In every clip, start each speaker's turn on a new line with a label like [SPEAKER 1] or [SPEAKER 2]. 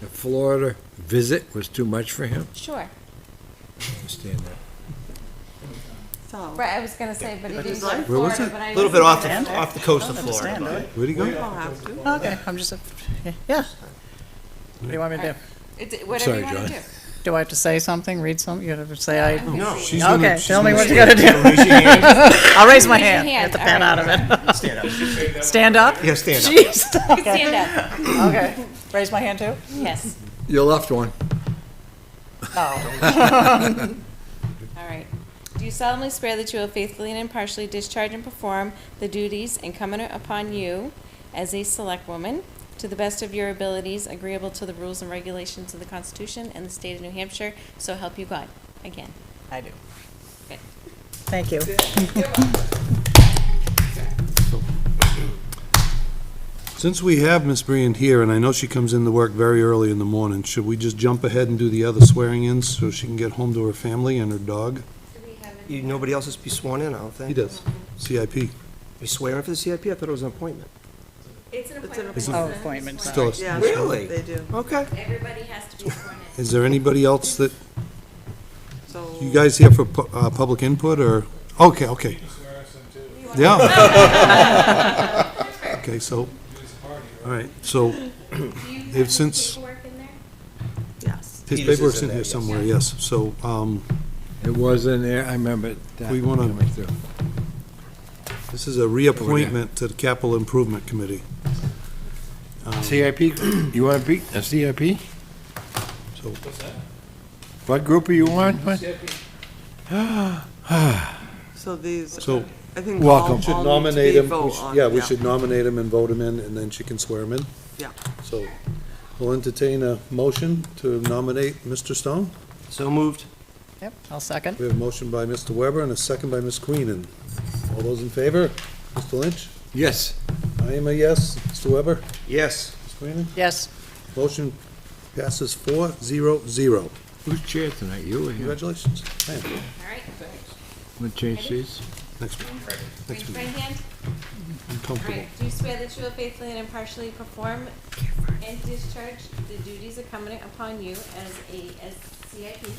[SPEAKER 1] The Florida visit was too much for him.
[SPEAKER 2] Sure.
[SPEAKER 1] I understand that.
[SPEAKER 3] So,
[SPEAKER 2] Right, I was gonna say, but he didn't go to
[SPEAKER 1] Where was
[SPEAKER 2] Florida,
[SPEAKER 1] it?
[SPEAKER 2] but I.
[SPEAKER 4] A little bit off the,
[SPEAKER 3] Alexander.
[SPEAKER 4] off the coast of Florida. but-
[SPEAKER 1] Where'd he go?
[SPEAKER 3] we'll have to.
[SPEAKER 5] Okay, I'm just, yeah. What do you want me to do?
[SPEAKER 2] It's, whatever
[SPEAKER 1] Sorry,
[SPEAKER 2] you
[SPEAKER 1] John.
[SPEAKER 2] wanna do.
[SPEAKER 5] Do I have to say something, read something? You have to say I,
[SPEAKER 4] No.
[SPEAKER 1] She's gonna-
[SPEAKER 5] okay,
[SPEAKER 1] she's
[SPEAKER 5] tell me
[SPEAKER 1] gonna
[SPEAKER 5] what you
[SPEAKER 1] stay.
[SPEAKER 5] gotta do.
[SPEAKER 4] Raise your hand.
[SPEAKER 5] I'll raise my
[SPEAKER 2] Raise your
[SPEAKER 5] hand, get
[SPEAKER 2] hand,
[SPEAKER 5] the pen
[SPEAKER 2] all
[SPEAKER 5] out of it.
[SPEAKER 4] Stand up.
[SPEAKER 5] Stand up?
[SPEAKER 4] Yeah, stand up.
[SPEAKER 5] Jeez,
[SPEAKER 2] You can Stand up,
[SPEAKER 5] okay. Raise my hand too?
[SPEAKER 2] yes,
[SPEAKER 1] Your left one.
[SPEAKER 5] Oh,
[SPEAKER 2] all right. Do you solemnly swear that you will faithfully and impartially discharge and perform the duties incumbent upon you as a select woman to the best of your abilities, agreeable to the rules and regulations of the Constitution and the state of New Hampshire, so help you God, again?
[SPEAKER 5] I do.
[SPEAKER 2] Good.
[SPEAKER 5] Thank you.
[SPEAKER 6] Since we have Miss Brand here, and I know she comes in to work very early in the morning, should we just jump ahead and do the other swearing-ins so she can get home to her family and her dog?
[SPEAKER 4] You, nobody else has to be sworn in, I don't think.
[SPEAKER 6] does. CIP.
[SPEAKER 4] You swearing for the CIP? I thought it was an appointment.
[SPEAKER 2] It's an
[SPEAKER 3] appointment.
[SPEAKER 2] appointment.
[SPEAKER 5] Oh, appointment, sorry.
[SPEAKER 6] Still,
[SPEAKER 3] Yeah,
[SPEAKER 4] Really?
[SPEAKER 3] They do.
[SPEAKER 4] Okay.
[SPEAKER 2] Everybody has to be sworn in.
[SPEAKER 6] is there anybody else that,
[SPEAKER 3] So.
[SPEAKER 6] you guys here for pu- uh, public input, or, okay, okay. Yeah. Okay, so, all right, so If since-
[SPEAKER 3] Yes.
[SPEAKER 6] his
[SPEAKER 4] Peters is
[SPEAKER 6] paperwork's
[SPEAKER 4] in
[SPEAKER 6] in
[SPEAKER 4] there,
[SPEAKER 6] here
[SPEAKER 4] yes.
[SPEAKER 6] somewhere, yes. So, um,
[SPEAKER 1] It was in there, I remember that.
[SPEAKER 6] We wanna-
[SPEAKER 1] coming through.
[SPEAKER 6] this is a reappointment to the Capital Improvement Committee.
[SPEAKER 1] CIP, you want to be a CIP?
[SPEAKER 6] So,
[SPEAKER 1] What group are you on? What?
[SPEAKER 3] So these,
[SPEAKER 6] So-
[SPEAKER 3] I think all,
[SPEAKER 1] Welcome.
[SPEAKER 3] all need
[SPEAKER 6] should
[SPEAKER 3] to
[SPEAKER 6] nominate
[SPEAKER 3] be
[SPEAKER 6] him,
[SPEAKER 3] vote
[SPEAKER 6] we should-
[SPEAKER 3] on.
[SPEAKER 6] yeah, we should nominate him and vote him in, and then she can swear him in.
[SPEAKER 3] Yeah.
[SPEAKER 6] So, we'll entertain a motion to nominate Mr. Stone.
[SPEAKER 4] So moved.
[SPEAKER 5] Yep, I'll second.
[SPEAKER 6] We have a motion by Mr. Weber and a second by Ms. Queenan. All those in favor? Mr. Lynch?
[SPEAKER 1] Yes.
[SPEAKER 6] I am a yes. Mr. Weber?
[SPEAKER 4] Yes.
[SPEAKER 6] Ms. Queenan?
[SPEAKER 5] Yes,
[SPEAKER 6] Motion passes four, zero, zero.
[SPEAKER 1] Who's chair tonight, you or him?
[SPEAKER 6] Congratulations. Man,
[SPEAKER 2] All right,
[SPEAKER 1] Want to change seats?
[SPEAKER 6] Next one.
[SPEAKER 2] raise your right hand.
[SPEAKER 6] I'm
[SPEAKER 2] All
[SPEAKER 6] comfortable.
[SPEAKER 2] right, do you swear that you will faithfully and impartially perform and discharge the duties incumbent upon you as a, as CIP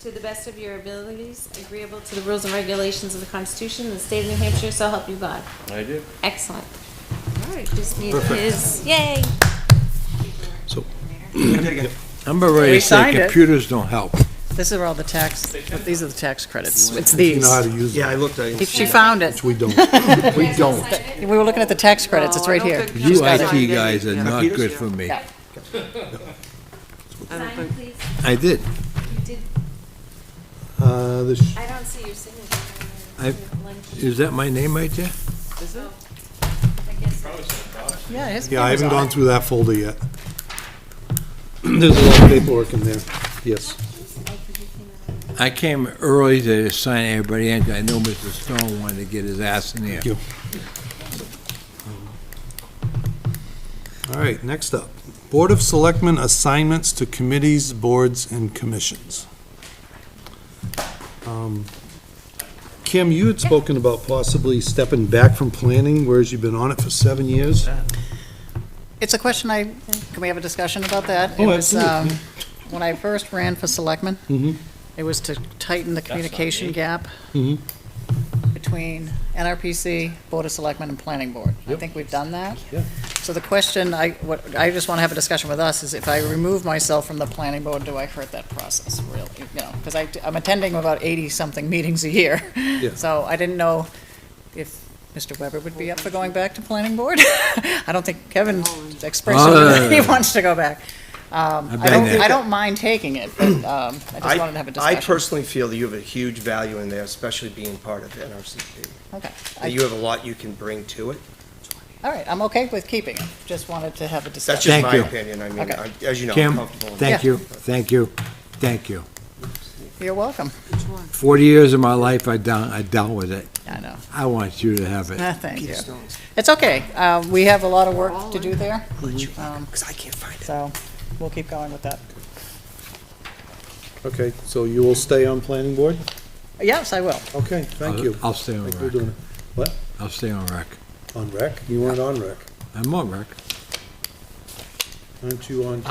[SPEAKER 2] to the best of your abilities, agreeable to the rules and regulations of the Constitution and the state of New Hampshire, so help you God? I do. Excellent. All right, just need his, yay!
[SPEAKER 6] So-
[SPEAKER 1] I'm about ready
[SPEAKER 5] We
[SPEAKER 1] to say
[SPEAKER 5] signed it.
[SPEAKER 1] computers don't help.
[SPEAKER 5] this is where all the tax, these are the tax credits. It's
[SPEAKER 6] You
[SPEAKER 5] these.
[SPEAKER 6] know how to use
[SPEAKER 4] Yeah, I
[SPEAKER 6] it.
[SPEAKER 4] looked, I,
[SPEAKER 5] She found it.
[SPEAKER 6] We don't.
[SPEAKER 1] We don't.
[SPEAKER 5] We were looking at the tax credits, it's
[SPEAKER 3] No, I
[SPEAKER 2] Oh,
[SPEAKER 5] right
[SPEAKER 3] don't
[SPEAKER 5] here.
[SPEAKER 3] think
[SPEAKER 5] She's
[SPEAKER 1] You
[SPEAKER 5] got it.
[SPEAKER 1] IT guys are
[SPEAKER 3] Yeah.
[SPEAKER 1] not
[SPEAKER 4] Computers,
[SPEAKER 1] good
[SPEAKER 3] yeah.
[SPEAKER 1] for me.
[SPEAKER 5] Yeah.
[SPEAKER 3] I don't
[SPEAKER 2] Sign,
[SPEAKER 3] think-
[SPEAKER 2] please.
[SPEAKER 1] I did.
[SPEAKER 2] You did,
[SPEAKER 6] Uh, this,
[SPEAKER 2] I don't see your signature.
[SPEAKER 1] I- Is that my name right there?
[SPEAKER 3] Is it?
[SPEAKER 5] Yeah, his
[SPEAKER 6] yeah, I
[SPEAKER 5] paper's
[SPEAKER 6] haven't
[SPEAKER 5] on
[SPEAKER 6] gone
[SPEAKER 5] it.
[SPEAKER 6] through that folder yet. There's a lot of paperwork in there. Yes.
[SPEAKER 1] I came early to sign everybody in. I know Mr. Stone wanted to get his ass in there.
[SPEAKER 6] Thank you. All right, next up, Board of Selectmen assignments to committees, boards, and commissions. Um, Kim, you had spoken about possibly stepping back from planning, whereas you've been on it for seven years.
[SPEAKER 5] It's a question I, can we have a discussion about that?
[SPEAKER 6] Oh,
[SPEAKER 5] It was,
[SPEAKER 6] absolutely.
[SPEAKER 5] um, When I first ran for selectmen,
[SPEAKER 6] Mhm.
[SPEAKER 5] it was to tighten the communication gap
[SPEAKER 6] Mhm.
[SPEAKER 5] between NRPC, Board of Selectmen, and Planning Board. I think we've done that.
[SPEAKER 6] Yeah.
[SPEAKER 5] So the question, I, what, I just want to have a discussion with us, is if I remove myself from the Planning Board, do I hurt that process, really? You know, because I, I'm attending about eighty-something meetings a year. So I didn't know if Mr. Weber would be up for going back to Planning Board. I don't think Kevin expressed
[SPEAKER 1] Oh, no, no,
[SPEAKER 5] that he
[SPEAKER 1] no, no.
[SPEAKER 5] wants to go back. Um,
[SPEAKER 1] I've
[SPEAKER 5] I don't,
[SPEAKER 1] been there.
[SPEAKER 5] I don't mind taking it, but um, I just wanted to have a
[SPEAKER 4] I
[SPEAKER 5] discussion.
[SPEAKER 4] personally feel that you have a huge value in there, especially being part of NRCP.
[SPEAKER 5] Okay.
[SPEAKER 4] That you have a lot you can bring to it.
[SPEAKER 5] All right, I'm okay with keeping it, just wanted to have a
[SPEAKER 4] That's
[SPEAKER 5] discussion.
[SPEAKER 4] just
[SPEAKER 1] Thank
[SPEAKER 4] my
[SPEAKER 1] you.
[SPEAKER 4] opinion. I mean,
[SPEAKER 5] Okay.
[SPEAKER 4] I- as you know, I'm
[SPEAKER 1] Kim,
[SPEAKER 4] comfortable. in-
[SPEAKER 1] thank
[SPEAKER 5] Yeah.
[SPEAKER 1] you, thank you, thank you.
[SPEAKER 5] You're welcome.
[SPEAKER 3] Which one?
[SPEAKER 1] Forty years of my life, I dealt, I dealt with it.
[SPEAKER 5] I know.
[SPEAKER 1] I want you to have it.
[SPEAKER 5] Ah, Thank you. It's okay. Uh, We have a lot of work to do there,
[SPEAKER 4] Because Um, I can't find it.
[SPEAKER 5] so we'll keep going with that.
[SPEAKER 6] Okay, so you will stay on planning board?
[SPEAKER 5] Yes, I will.
[SPEAKER 6] Okay, thank
[SPEAKER 1] I'll-
[SPEAKER 6] you.
[SPEAKER 1] I'll stay on
[SPEAKER 6] Thank you for
[SPEAKER 1] rec.
[SPEAKER 6] doing it.
[SPEAKER 1] I'll stay on rec.
[SPEAKER 6] On rec? You weren't on rec.
[SPEAKER 1] I'm on rec.
[SPEAKER 6] Aren't you on